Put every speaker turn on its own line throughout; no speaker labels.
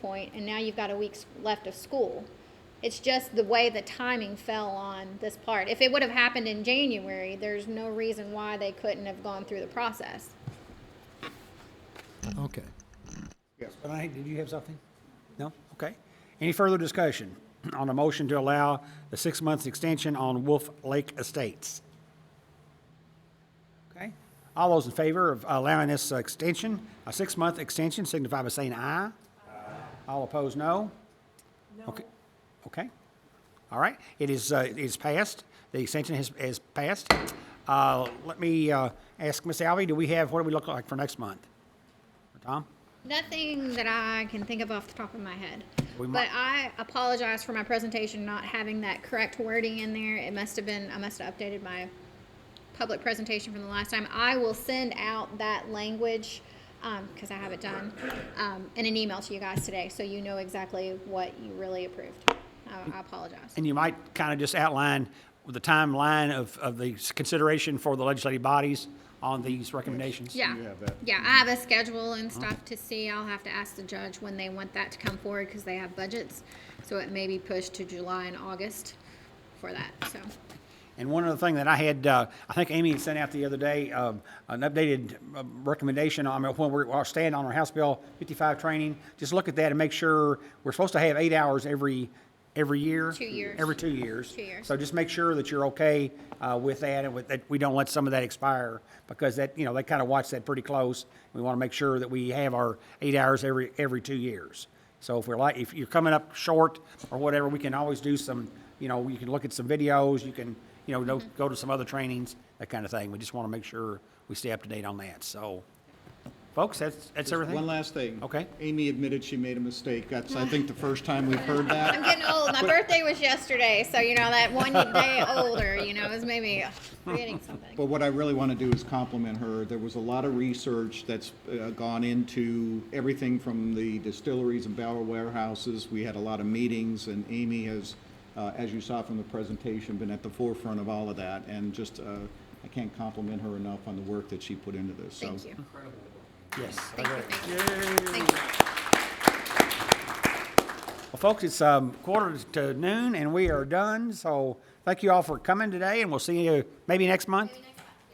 point, and now you've got a week's left of school. It's just the way the timing fell on this part. If it would have happened in January, there's no reason why they couldn't have gone through the process.
Okay.
Yes, but I, did you have something? No? Okay. Any further discussion on a motion to allow the six months extension on Wolf Lake Estates? Okay. All those in favor of allowing this uh, extension, a six-month extension, signify by saying aye. All opposed, no? No. Okay. All right. It is, uh, it is passed. The extension has, has passed. Uh, let me, uh, ask Ms. Alvey, do we have, what do we look like for next month? Tom?
Nothing that I can think of off the top of my head.
We
But
might-
I apologize for my presentation not having that correct wording in there. It must have been, I must have updated my public presentation from the last time. I will send out that language, um, cause I have it done, um, in an email to you guys today, so you know exactly what you really approved. I, I apologize.
And you might kind of just outline the timeline of, of the consideration for the legislative bodies on these recommendations?
Yeah, yeah, I have a schedule and stuff to see. I'll have to ask the judge when they want that to come forward, cause they have budgets. So it may be pushed to July and August for that, so.
And one other thing that I had, uh, I think Amy had sent out the other day, um, an updated uh, recommendation on uh, when we're, our stand on our House Bill 55 training. Just look at that and make sure, we're supposed to have eight hours every, every year.
Two years.
Every two years.
Two years.
So just make sure that you're okay uh, with that and with, that we don't let some of that expire because that, you know, they kind of watch that pretty close. We want to make sure that we have our eight hours every, every two years. So if we're like, if you're coming up short or whatever, we can always do some, you know, you can look at some videos, you can, you know,
Mm-hmm.
go- go to some other trainings, that kind of thing. We just want to make sure we stay up to date on that. So, folks, that's, that's
Just
everything?
One last thing.
Okay.
Amy admitted she made a mistake. That's, I think, the first time we've heard
I'm
that.
getting old. My birthday was yesterday, so you know that one day older, you know, is maybe forgetting something.
But what I really want to do is compliment her. There was a lot of research that's uh, gone into everything from the distilleries and barrel warehouses. We had a lot of meetings, and Amy has, uh, as you saw from the presentation, been at the forefront of all of that. And just, uh, I can't compliment her enough on the work that she put into this. So
Thank you.
Yes.
Thank you. Thank you. Thank you.
Well, folks, it's um, quarter to noon and we are done. So thank you all for coming today and we'll see you maybe next month.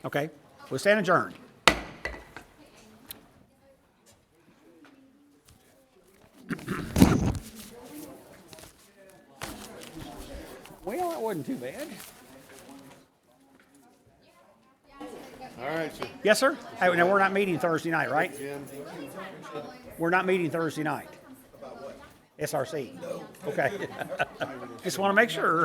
Okay, we'll stand adjourned. Well, that wasn't too bad.
All right, so
Yes, sir? Hey, now, we're not meeting Thursday night, right? We're not meeting Thursday night. SRC? Okay. Just want to make sure.